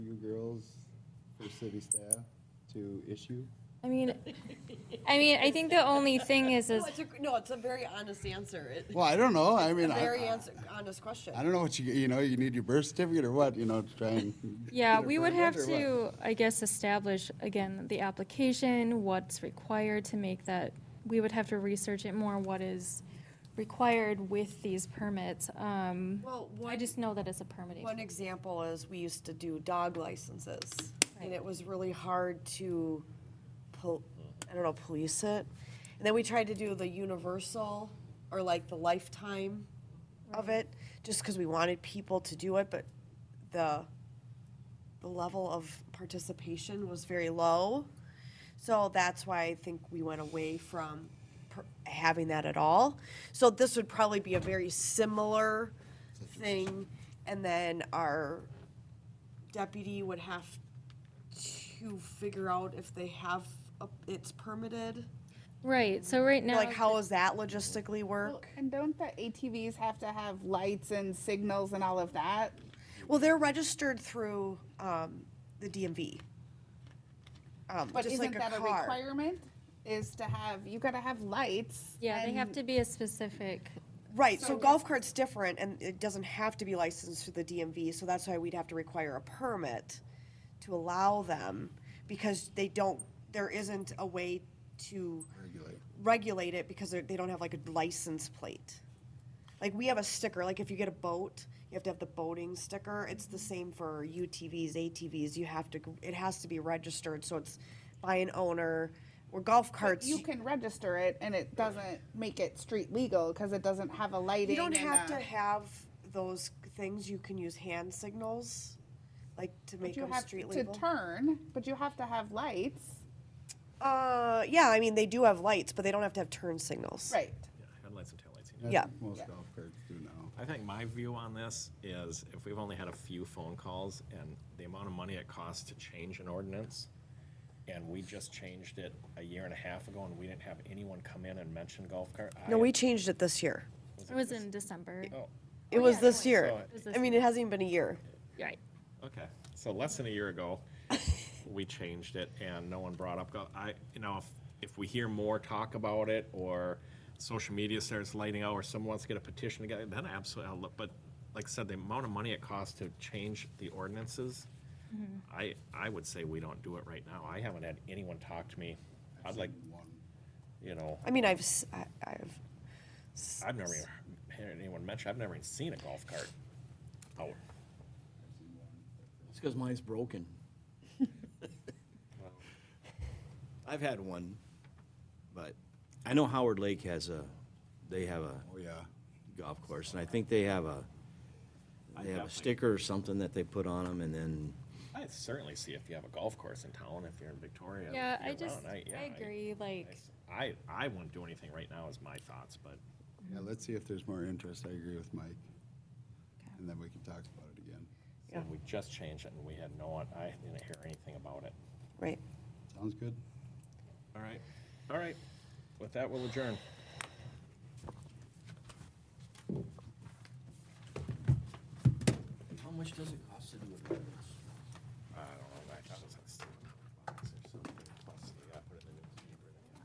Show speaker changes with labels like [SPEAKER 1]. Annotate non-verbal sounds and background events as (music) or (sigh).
[SPEAKER 1] city staff to issue?
[SPEAKER 2] I mean, I mean, I think the only thing is, is
[SPEAKER 3] No, it's a, no, it's a very honest answer. It-
[SPEAKER 1] Well, I don't know, I mean,
[SPEAKER 3] a very
[SPEAKER 1] I,
[SPEAKER 3] answer, honest question.
[SPEAKER 1] I don't know what you, you know, you need your birth certificate or what, you know, to try
[SPEAKER 3] (laughs)
[SPEAKER 1] and.
[SPEAKER 2] yeah,
[SPEAKER 1] get it
[SPEAKER 2] we would have
[SPEAKER 1] approved or what.
[SPEAKER 2] to, I guess, establish again the application, what's required to make that. We would have to research it more. What is required with these permits? Um,
[SPEAKER 3] Well,
[SPEAKER 2] I
[SPEAKER 3] one,
[SPEAKER 2] just know that it's a permitting.
[SPEAKER 3] one example is we used to do dog licenses, and it was really hard to, pol- I don't know, police it. And then we tried to do the universal or like the lifetime of it, just because we wanted people to do it, but the the level of participation was very low. So that's why I think we went away from per- having that at all. So this would probably be a very similar thing. And then our deputy would have to figure out if they have, a- it's permitted.
[SPEAKER 2] Right. So right now,
[SPEAKER 3] Like, how does that logistically
[SPEAKER 4] Well,
[SPEAKER 3] work?
[SPEAKER 4] And don't the ATVs have to have lights and signals and all of that?
[SPEAKER 3] Well, they're registered through um, the DMV. Um,
[SPEAKER 4] But
[SPEAKER 3] Just
[SPEAKER 4] isn't
[SPEAKER 3] like a
[SPEAKER 4] that a
[SPEAKER 3] car.
[SPEAKER 4] requirement? Is to have, you gotta have lights.
[SPEAKER 2] yeah, they have
[SPEAKER 4] and-
[SPEAKER 2] to be a specific.
[SPEAKER 3] Right, so golf cart's different and it doesn't have to be licensed through the DMV, so that's why we'd have to require a permit to allow them because they don't, there isn't a way to regulate it because they're- they don't have like a license plate. Like we have a sticker, like if you get a boat, you have to have the boating sticker. It's the same for UTVs, ATVs. You have to, it has to be registered, so it's by an owner. Where golf carts,
[SPEAKER 4] You can register it and it doesn't make it street legal because it doesn't have a lighting.
[SPEAKER 3] You don't
[SPEAKER 4] and uh,
[SPEAKER 3] have
[SPEAKER 4] a-
[SPEAKER 3] to have those things. You can use hand signals, like to
[SPEAKER 4] but
[SPEAKER 3] make
[SPEAKER 4] You
[SPEAKER 3] them
[SPEAKER 4] have
[SPEAKER 3] street
[SPEAKER 4] to
[SPEAKER 3] legal.
[SPEAKER 4] turn, but you have to have lights.
[SPEAKER 3] uh, yeah, I mean they do have lights, but they don't have to have turn signals.
[SPEAKER 4] Right.
[SPEAKER 5] Yeah, Headlights and taillights. you
[SPEAKER 1] I
[SPEAKER 5] need.
[SPEAKER 3] Yeah.
[SPEAKER 1] think Most golf carts do now.
[SPEAKER 5] I think my view on this is if we've only had a few phone calls and the amount of money it costs to change an ordinance, and we just changed it a year and a half ago and we didn't have anyone come in and mention golf cart. I-
[SPEAKER 3] No, we changed it this year.
[SPEAKER 2] It was in December.
[SPEAKER 5] Oh,
[SPEAKER 3] It was this year.
[SPEAKER 5] it
[SPEAKER 2] was this
[SPEAKER 3] I mean, it hasn't even been a year.
[SPEAKER 2] Right.
[SPEAKER 5] okay. So less than a year ago, (laughs) we changed it and no one brought up, go- I, you know, if, if we hear more talk about it or social media starts lighting out or someone wants to get a petition together, then absolutely, I'll look, but like I said, the amount of money it costs to change the ordinances, I, I would say we don't do it right now. I haven't had anyone talk to me. I'd like, you know,
[SPEAKER 3] I mean, I've, s- I, have
[SPEAKER 5] I've never even heard anyone mention, I've never even seen a golf cart out.
[SPEAKER 6] It's because mine's broken. I've had one, but I know Howard Lake has a, they have a
[SPEAKER 1] Oh, yeah.
[SPEAKER 6] golf course, and I think they have a, they have a sticker or something that they put on them, and then,
[SPEAKER 5] I certainly see if you have a golf course in town, if you're in Victoria.
[SPEAKER 2] Yeah, I
[SPEAKER 5] year-round,
[SPEAKER 2] just,
[SPEAKER 5] yeah,
[SPEAKER 2] I agree. Like,
[SPEAKER 5] I, I wouldn't do anything right now is my thoughts, but
[SPEAKER 1] Yeah, let's see if there's more interest. I agree with Mike. And then we can talk about it again.
[SPEAKER 5] so we just changed it and we had no one, I didn't hear anything about it.
[SPEAKER 3] right.
[SPEAKER 1] Sounds good?
[SPEAKER 5] All right, all right. With that, we'll adjourn.
[SPEAKER 6] how much does it cost to do it?